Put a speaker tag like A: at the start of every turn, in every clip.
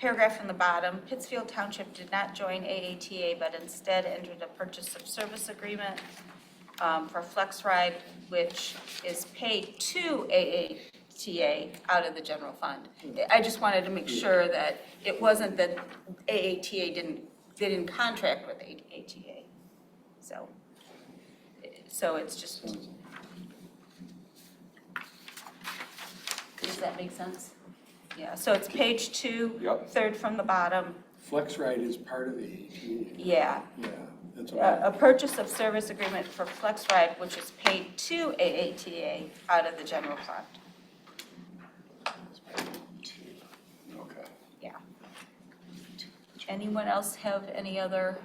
A: Paragraph from the bottom, Pittsfield Township did not join AATA, but instead entered a purchase of service agreement um, for Flex Ride, which is paid to AATA out of the general fund. I just wanted to make sure that it wasn't that AATA didn't, they didn't contract with AATA. So, so it's just, does that make sense? Yeah, so it's page two,
B: Yep.
A: third from the bottom,
C: Flex Ride is part of the ATA.
A: yeah.
C: Yeah, that's what
A: A
C: I,
A: a purchase of service agreement for Flex Ride, which is paid to AATA out of the general fund.
B: Okay.
A: Yeah. Anyone else have any other,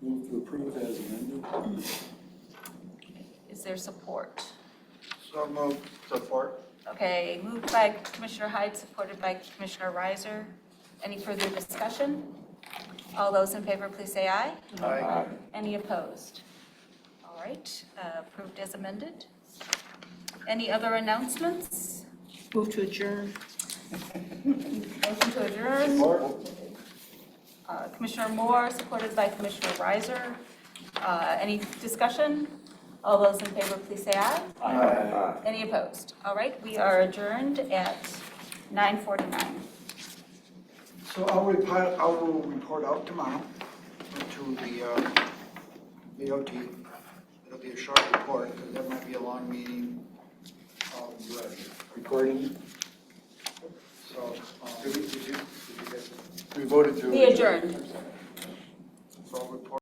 C: move to approve as amended.
A: is there support?
D: So moved. Support?
A: Okay, moved by Commissioner Hyde, supported by Commissioner Reiser. Any further discussion? All those in favor, please say aye.
B: Aye.
A: Any opposed? All right, uh, approved as amended. Any other announcements?
E: Move to adjourn.
A: Motion to adjourn.
D: Support?
A: Uh, Commissioner Moore, supported by Commissioner Reiser. Uh, Any discussion? All those in favor, please say aye.
B: Aye.
A: Any opposed? All right, we are adjourned at 9:49.
D: So I'll report, I will report out tomorrow to the uh, VOT. It'll be a short report, because that might be a long meeting. Um, but-
C: Recording,
D: So, um,
C: we voted to.
A: We adjourn.
D: so I'll report